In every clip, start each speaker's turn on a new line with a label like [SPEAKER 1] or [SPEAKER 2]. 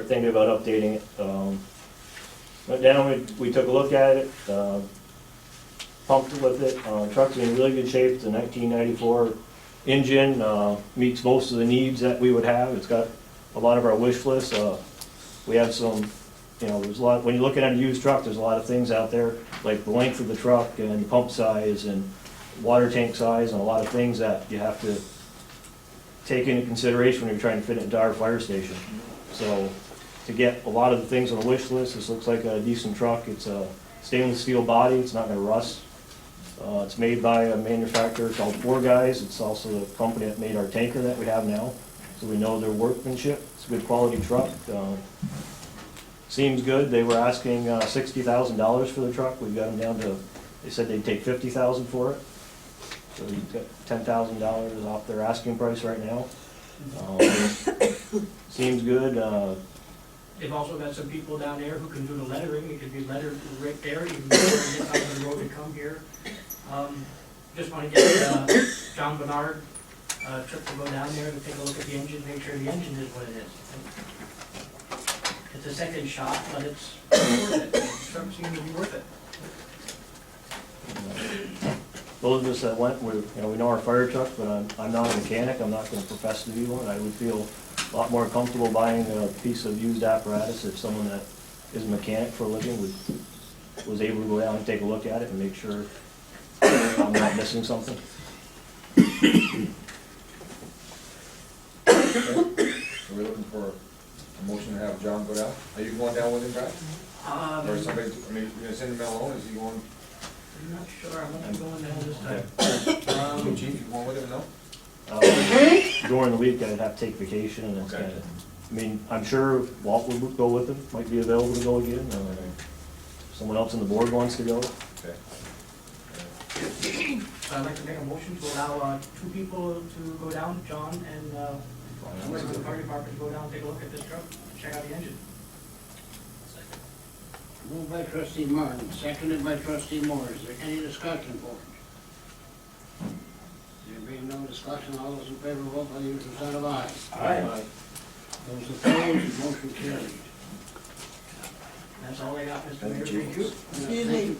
[SPEAKER 1] We're thinking about updating it. Um, Went down, we, we took a look at it, uh, pumped with it. Uh, Truck's in really good shape. It's a 1994 engine, uh, meets most of the needs that we would have. It's got a lot of our wish lists. Uh, We have some, you know, there's a lot, when you're looking at a used truck, there's a lot of things out there, like the length of the truck and pump size and water tank size and a lot of things that you have to take into consideration when you're trying to fit it into our fire station. So to get a lot of the things on the wish list, this looks like a decent truck. It's a stainless steel body, it's not gonna rust. Uh, it's made by a manufacturer called Four Guys. It's also the company that made our tanker that we have now. So we know their workmanship. It's a good quality truck. Uh, Seems good. They were asking uh, sixty thousand dollars for the truck. We've got them down to, they said they'd take fifty thousand for it. So we've got ten thousand dollars off their asking price right now. Um, Seems good. Uh,
[SPEAKER 2] They've also got some people down there who can do the lettering, it could be lettered right there, you can get out of the road and come here. Um, Just want to get uh, John Bernard, uh, trip to go down there and take a look at the engine, make sure the engine is what it is. It's a second shot, but it's worth it, the truck seems to be worth it.
[SPEAKER 1] Those of us that went, we, you know, we know our fire truck, but I'm, I'm not a mechanic, I'm not gonna profess to be one. I would feel a lot more comfortable buying a piece of used apparatus if someone that is a mechanic for a living was, was able to go out and take a look at it and make sure I'm not missing something.
[SPEAKER 3] Okay. So We're looking for a motion to have John go down. Are you going down with him, Brad?
[SPEAKER 2] Um,
[SPEAKER 3] Or somebody, I mean, you're gonna send him alone, is he going,
[SPEAKER 2] I'm not sure, I'm not going down this time.
[SPEAKER 3] um,
[SPEAKER 2] Um,
[SPEAKER 3] chief, you going with him, no?
[SPEAKER 1] Uh, During the week, I'd have to take vacation and it's
[SPEAKER 3] Okay.
[SPEAKER 1] kinda, I mean, I'm sure Walt would go with him, might be available to go again. uh, Someone else on the board wants to go.
[SPEAKER 3] Okay.
[SPEAKER 2] So I'd like to make a motion to allow uh, two people to go down, John and uh, somebody from the fire department to go down, take a look at this truck, check out the engine.
[SPEAKER 4] Moved by trustee Martin, seconded by trustee Moore. Is there any discussion, board? There being no discussion, all those in favor, vote by the usual sign of aye.
[SPEAKER 2] Aye.
[SPEAKER 4] Those opposed, motion carried.
[SPEAKER 2] That's all I got, Mr. Mayor, thank you.
[SPEAKER 5] Excuse me,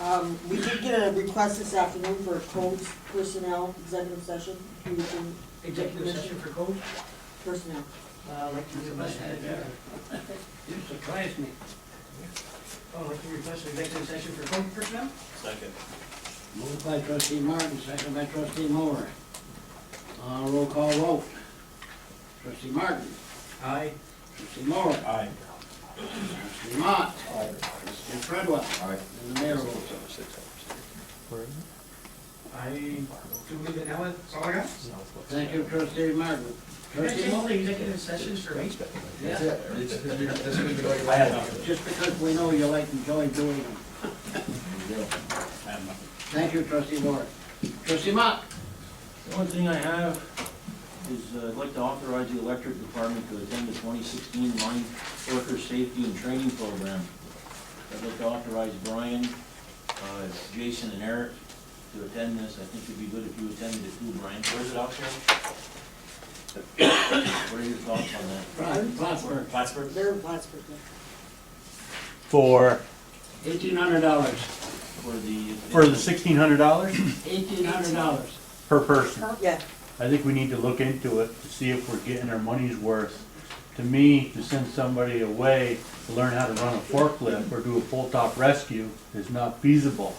[SPEAKER 5] um, we did get a request this afternoon for a codes personnel executive session, we can,
[SPEAKER 2] Executive session for code,
[SPEAKER 5] personnel.
[SPEAKER 2] uh, like to request, uh,
[SPEAKER 4] You surprised me.
[SPEAKER 2] oh, like to request an executive session for code personnel?
[SPEAKER 4] Moved by trustee Martin, seconded by trustee Moore. Uh, roll call vote. Trustee Martin.
[SPEAKER 2] Aye.
[SPEAKER 4] Trustee Moore. Aye. Trustee Mott. Aye. Trustee Fredwell.
[SPEAKER 3] Aye.
[SPEAKER 4] And the mayor votes aye.
[SPEAKER 2] I, do we leave it now, that's all I got?
[SPEAKER 4] Thank you, trustee Martin.
[SPEAKER 2] Can I
[SPEAKER 4] Trustee
[SPEAKER 2] say
[SPEAKER 4] Moore?
[SPEAKER 2] only executive sessions for eight?
[SPEAKER 3] That's it. It's- it's- it's- this week, like,
[SPEAKER 4] Just because we know you like enjoy doing them.
[SPEAKER 3] you know,
[SPEAKER 4] Thank you, trustee Moore. Trustee Mott?
[SPEAKER 6] The only thing I have is uh, I'd like to authorize the electric department to attend the 2016 line worker safety and training program. I'd like to authorize Brian, uh, Jason, and Eric to attend this. I think it'd be good if you attended it too, Brian. Where's it out there? What are your thoughts on that?
[SPEAKER 4] Plattsburgh,
[SPEAKER 6] Plattsburgh?
[SPEAKER 5] They're in Plattsburgh. yeah.
[SPEAKER 7] For,
[SPEAKER 4] eighteen hundred dollars,
[SPEAKER 6] For the...
[SPEAKER 7] for the sixteen hundred dollars
[SPEAKER 4] eighteen hundred dollars.
[SPEAKER 7] per person.
[SPEAKER 5] Yeah,
[SPEAKER 7] I think we need to look into it to see if we're getting our money's worth. To me, to send somebody away to learn how to run a forklift or do a pull-top rescue is not feasible.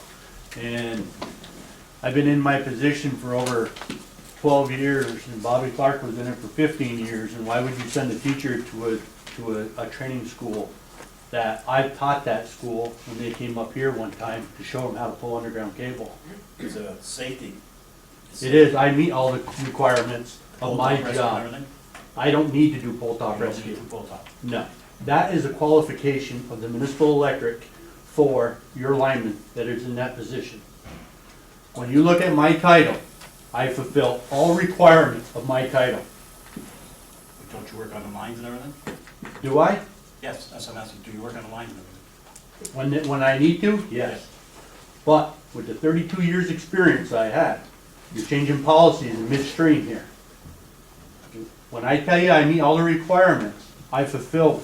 [SPEAKER 7] And I've been in my position for over twelve years, and Bobby Clark was in it for fifteen years, and why would you send a teacher to a, to a, a training school that I taught that school when they came up here one time to show them how to pull underground cable?
[SPEAKER 6] It's a safety.
[SPEAKER 7] It is, I meet all the requirements of my job. I don't need to do pull-top rescue. No. That is a qualification of the municipal electric for your lineman that is in that position. When you look at my title, I fulfill all requirements of my title.
[SPEAKER 8] Don't you work on the lines and everything?
[SPEAKER 7] Do I?
[SPEAKER 8] Yes, that's what I'm asking, do you work on the lines and everything?
[SPEAKER 7] When, it- when I need to? Yes. But with the thirty-two years' experience I had, you're changing policies in midstream here. When I tell you I meet all the requirements, I fulfill